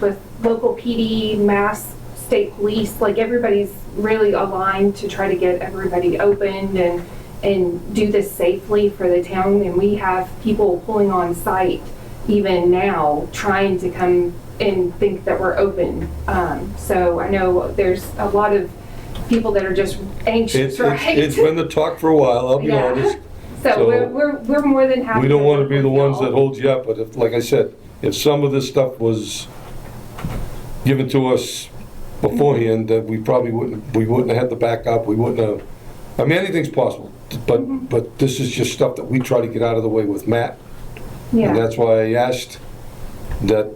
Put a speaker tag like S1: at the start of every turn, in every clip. S1: with local PD, mass, state police, like everybody's really aligned to try to get everybody opened and, and do this safely for the town. And we have people pulling on site even now, trying to come and think that we're open. Um, so I know there's a lot of people that are just
S2: It's,
S1: anxious,
S2: it's,
S1: right?
S2: it's been the talk for a while, I'll be
S1: Yeah.
S2: honest.
S1: So
S2: so
S1: we're, we're, we're more than happy.
S2: We don't want to
S1: work
S2: be the
S1: with
S2: ones
S1: y'all.
S2: that hold you up, but if, like I said, if some of this stuff was given to us beforehand, that we probably wouldn't, we wouldn't have had the backup, we wouldn't have, I mean, anything's possible.
S1: Mm-hmm.
S2: But, but this is just stuff that we try to get out of the way with Matt. And
S1: Yeah,
S2: that's why I asked that,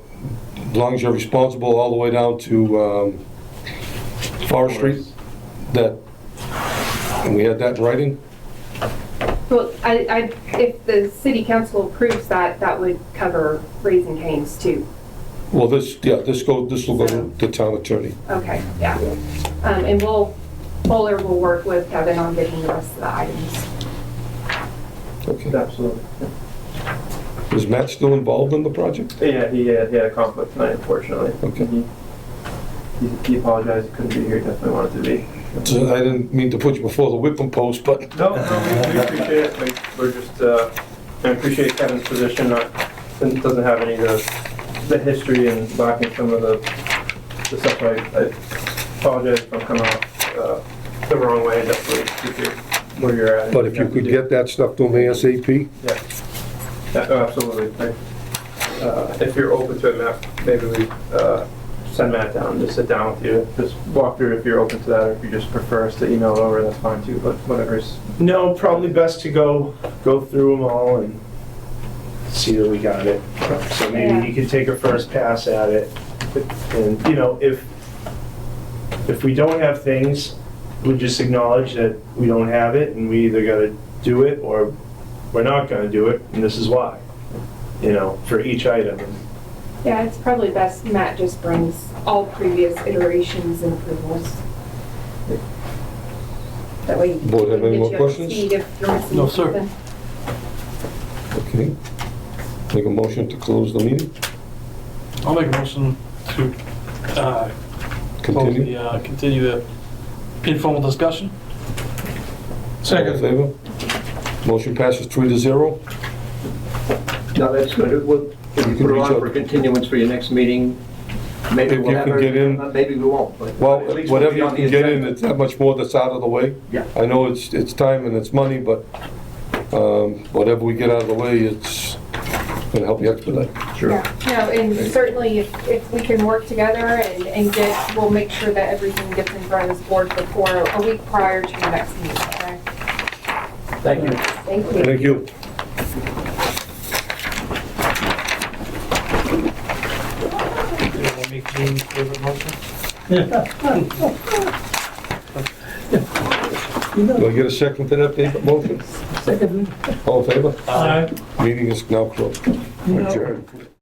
S2: as long as you're responsible all the way down to um, Forest Street, that, and we had that in writing,
S1: well, I, I, if the city council approves that, that would cover raising canes too.
S2: well, this, yeah, this go, this will go to the town attorney.
S1: Okay, yeah. Um, and we'll, Bowler will work with Kevin on getting the rest of the items.
S2: Okay.
S3: Absolutely.
S2: Is Matt still involved in the project?
S3: Yeah, he had, he had a conflict tonight, unfortunately.
S2: Okay.
S3: He, he- he apologized, he couldn't be here, definitely wanted to be.
S2: So I didn't mean to put you before the whipping post, but
S3: No, no, we- we appreciate it, Like, we're just, uh, I appreciate Kevin's position, not, doesn't doesn't have any of the, the history and lacking some of the, the stuff. I I apologize if I'm coming off uh, the wrong way, definitely, if you're, where you're at.
S2: but if you could get that stuff to me ASAP,
S3: Yeah, Yeah, oh, absolutely. I- uh, If you're open to it, Matt, maybe we uh, send Matt down, just sit down with you, just walk through if you're open to that, or if you just prefer us to email it over, that's fine too, but whatever's,
S4: No, probably best to go, go through them all and see that we got it. So
S1: Yeah.
S4: maybe you could take a first pass at it. And, you know, if, if we don't have things, we just acknowledge that we don't have it and we either gotta do it or we're not gonna do it and this is why. You know, for each item.
S1: Yeah, it's probably best Matt just brings all previous iterations and approvals. That way. he
S2: Board have
S1: can get
S2: any more
S1: you up to
S2: questions?
S1: speed if you're missing
S3: No, sir.
S1: something.
S2: okay? Make a motion to close the meeting,
S5: I'll make a motion to uh, close
S2: continue.
S5: the, uh, continue the informal discussion.
S2: Second. Favor? Motion passes three to zero.
S6: No, that's good. We'll, if you
S2: can
S6: put it
S2: reach out.
S6: on for continuance for your next meeting, maybe
S2: If
S6: we'll
S2: you
S6: have
S2: can get in.
S6: it, maybe we won't, but.
S2: Well,
S6: at least we'll
S2: whatever
S6: be
S2: you
S6: on the
S2: can get in,
S6: agenda.
S2: it's that much more that's out of the way.
S6: Yeah.
S2: I know it's, it's time and it's money, but um, whatever we get out of the way, it's gonna help you expedite.
S1: Yeah, no, and certainly if, if we can work together and, and get, we'll make sure that everything gets in front of this board before, a week prior to the next meeting, okay?
S6: Thank you.
S1: Thank you.
S2: Thank you.
S5: Did I make Jean's favorite motion?
S2: Do I get a second to that David, motion? Second. All in favor? Meeting is now closed. Adjourned.